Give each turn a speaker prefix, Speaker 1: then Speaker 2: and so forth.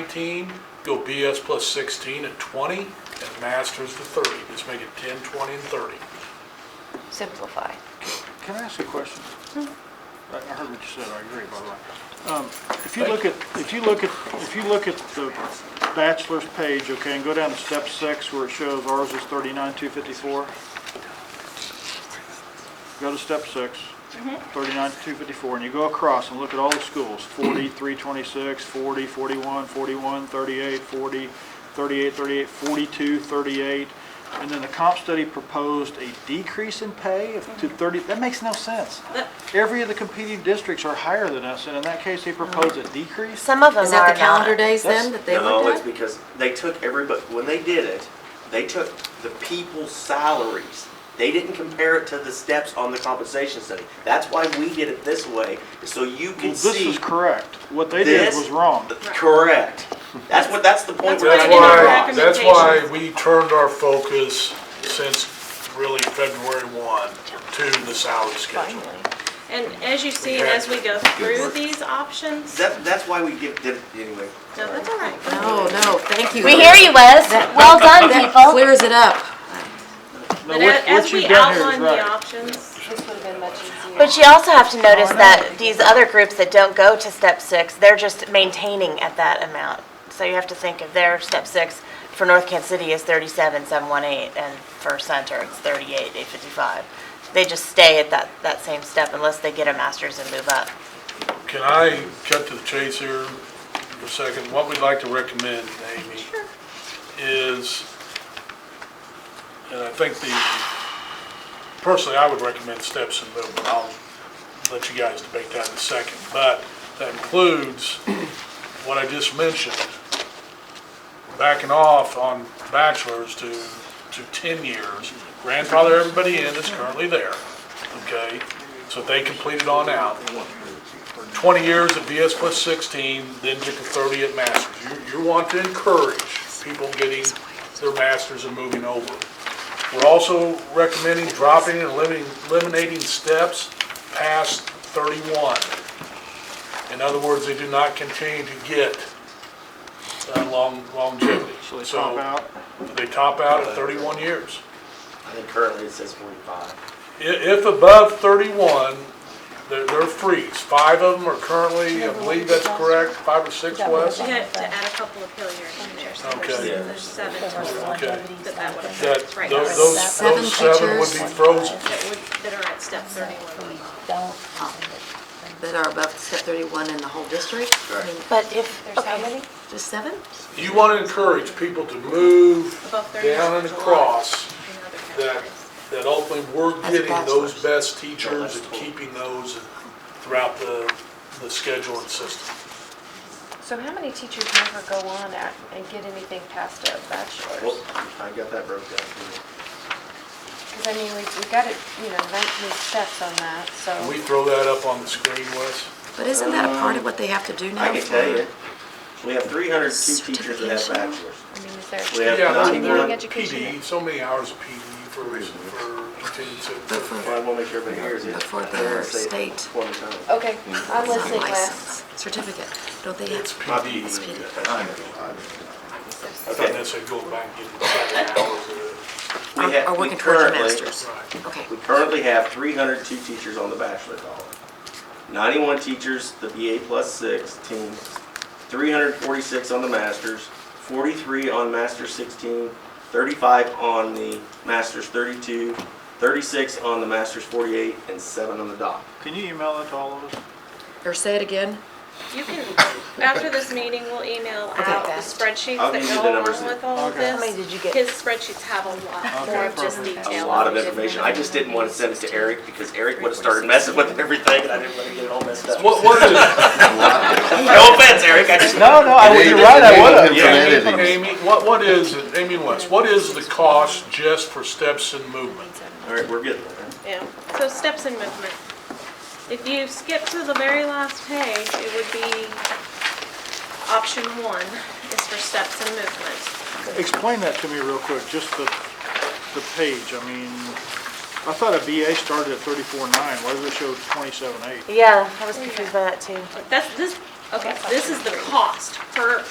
Speaker 1: nineteen, go BS plus sixteen at twenty, and master's to thirty. Just make it 10, 20, and thirty.
Speaker 2: simplify.
Speaker 3: Can I ask you a question? I I heard what you said, I agree, by the way. Um, If you look at, if you look at, if you look at the bachelor's page, okay, and go down to step six where it shows ours is 39,254. Go to step six, 39,254, and you go across and look at all the schools, 40, 326, 40, 41, 41, 38, 40, 38, 38, 42, 38. And then the comp study proposed a decrease in pay of to 30, that makes no sense. Every of the competing districts are higher than us, and in that case, they proposed a decrease.
Speaker 2: Some of them are
Speaker 4: Is that
Speaker 2: not.
Speaker 4: the calendar days
Speaker 3: That's-
Speaker 4: then that they
Speaker 5: no, it's
Speaker 4: looked at?
Speaker 5: because they took everybody, when they did it, they took the people's salaries. They didn't compare it to the steps on the compensation study. That's why we did it this way, so you
Speaker 3: Well,
Speaker 5: can
Speaker 3: this
Speaker 5: see
Speaker 3: is correct. What they did
Speaker 5: this.
Speaker 3: was wrong.
Speaker 5: Correct. That's what, that's the point.
Speaker 6: That's
Speaker 5: we're
Speaker 6: what I
Speaker 5: at.
Speaker 6: did in our
Speaker 1: That's why, that's why
Speaker 6: recommendations.
Speaker 1: we turned our focus since really February one to the salary schedule.
Speaker 2: Finally.
Speaker 6: And as you see, and as we go through these options, no,
Speaker 5: That, that's why we give, did it anyway.
Speaker 6: that's all right.
Speaker 4: No, no, thank you.
Speaker 2: We hear you, Wes. Well done,
Speaker 4: That
Speaker 2: people.
Speaker 4: clears it up.
Speaker 3: No, what-
Speaker 6: But a- as
Speaker 3: what you've
Speaker 6: we
Speaker 3: done here is
Speaker 6: outline the
Speaker 3: right.
Speaker 6: options,
Speaker 2: But you also have to notice that these other groups that don't go to step six, they're just maintaining at that amount. So you have to think of their step six for North Kansas City is thirty-seven, seven one eight, and for Center, it's thirty-eight, eight fifty-five. They just stay at that, that same step unless they get a master's and move up.
Speaker 1: Can I cut to the chase here for a second? What we'd like to recommend, Amy, is, and I think the, personally, I would recommend steps and movement. I'll let you guys debate that in a second. But that includes what I just mentioned, backing off on bachelor's to, to 10 years, grandfather everybody in that's currently there, okay? So they completed on out. 20 years at BS plus 16, then get to 30 at masters. You, you want to encourage people getting their masters and moving over. We're also recommending dropping and eliminating, eliminating steps past 31. In other words, they do not continue to get uh, long longevity.
Speaker 3: So they top out.
Speaker 1: They top out at 31 years.
Speaker 5: I think currently it says forty-five.
Speaker 1: I- If above 31, they're, they're freeze. Five of them are currently, I believe that's correct, five or six Wes?
Speaker 6: you had to add a couple of Hilliard in there, so there's,
Speaker 1: Okay.
Speaker 6: there's seven total
Speaker 1: Okay.
Speaker 6: that that would
Speaker 1: That,
Speaker 6: affect
Speaker 1: tho-
Speaker 6: right now.
Speaker 1: those, those
Speaker 4: Seven
Speaker 1: seven would be
Speaker 4: teachers.
Speaker 1: frozen.
Speaker 6: That would, that are at step thirty-one.
Speaker 4: That are above step 31 in the whole district? I mean,
Speaker 2: But if, okay,
Speaker 4: Just seven?
Speaker 1: You want to encourage people to move
Speaker 6: Above 31
Speaker 1: down and
Speaker 6: is a lot.
Speaker 1: across
Speaker 6: in other
Speaker 1: that,
Speaker 6: categories.
Speaker 1: that ultimately we're
Speaker 4: As a
Speaker 1: getting those
Speaker 4: bachelor's.
Speaker 1: best teachers and keeping those throughout the, the schedule and system.
Speaker 7: So how many teachers never go on at and get anything past a
Speaker 5: Well,
Speaker 7: bachelor's?
Speaker 5: I got that broke down. here.
Speaker 7: Because I mean, we, we got it, you know, 19 steps on that,
Speaker 1: Can
Speaker 7: so.
Speaker 1: we throw that up on the screen, Wes?
Speaker 4: But isn't that a part of what they have to do now?
Speaker 5: I can tell you,
Speaker 4: for-
Speaker 5: we have three hundred two teachers that have bachelors.
Speaker 7: I mean, is
Speaker 5: We
Speaker 7: there,
Speaker 5: have
Speaker 1: Yeah,
Speaker 7: not
Speaker 1: they're-
Speaker 7: even- Continuing
Speaker 5: ninety-one
Speaker 1: they're
Speaker 7: education.
Speaker 1: PD, so many hours of PD for, for continued
Speaker 4: But for-
Speaker 5: Well, I want to make sure everybody hears it.
Speaker 4: Before
Speaker 5: I don't wanna
Speaker 4: their
Speaker 5: say it
Speaker 4: state.
Speaker 5: Twenty times.
Speaker 7: okay, I'm
Speaker 5: Mm-hmm.
Speaker 4: It's not
Speaker 7: listening, Wes.
Speaker 4: license, certificate. Don't they
Speaker 1: It's
Speaker 4: have,
Speaker 1: PD.
Speaker 4: It's PD.
Speaker 1: I thought that said go back and get seven hours
Speaker 5: We
Speaker 4: are-
Speaker 5: have-
Speaker 4: are
Speaker 5: we
Speaker 4: working towards a
Speaker 5: currently-
Speaker 4: master's?
Speaker 1: of, right.
Speaker 4: Okay.
Speaker 5: We currently have three hundred two teachers on the bachelor column. Ninety-one teachers, the BA plus sixteen, three hundred forty-six on the masters, forty-three on master sixteen, thirty-five on the masters thirty-two, thirty-six on the masters forty-eight, and seven on the doc.
Speaker 3: Can you email that to all of us?
Speaker 4: Or say it again?
Speaker 6: You can, after this meeting, we'll email out the spreadsheets
Speaker 5: I'll
Speaker 6: that
Speaker 5: give you
Speaker 6: go
Speaker 5: the numbers
Speaker 6: along with all of
Speaker 3: Okay.
Speaker 6: this.
Speaker 2: How many did you get?
Speaker 6: His spreadsheets have a lot
Speaker 3: Okay,
Speaker 6: more of just
Speaker 3: perfect.
Speaker 5: A
Speaker 6: detail.
Speaker 5: lot of
Speaker 6: than we did
Speaker 5: information.
Speaker 6: in
Speaker 5: I just didn't want to send it to Eric because Eric would have started messing with everything, and I didn't want to get it all messed up.
Speaker 1: What, what is,
Speaker 5: No offense, Eric, I just.
Speaker 3: No, no, I, you're right, I would have.
Speaker 1: Amy, Amy, what, what is, it? Amy and Wes, what is the cost just for steps and movement?
Speaker 5: All right, we're good. All
Speaker 6: Yeah, so steps in movement. If you skip to the very last page, it would be option one is for steps in movement.
Speaker 3: Explain that to me real quick, just the, the page, I mean, I thought a BA started at thirty-four nine, why does it show twenty-seven eight?
Speaker 2: yeah, I was confused by that too.
Speaker 6: That's, this, okay, this is the cost per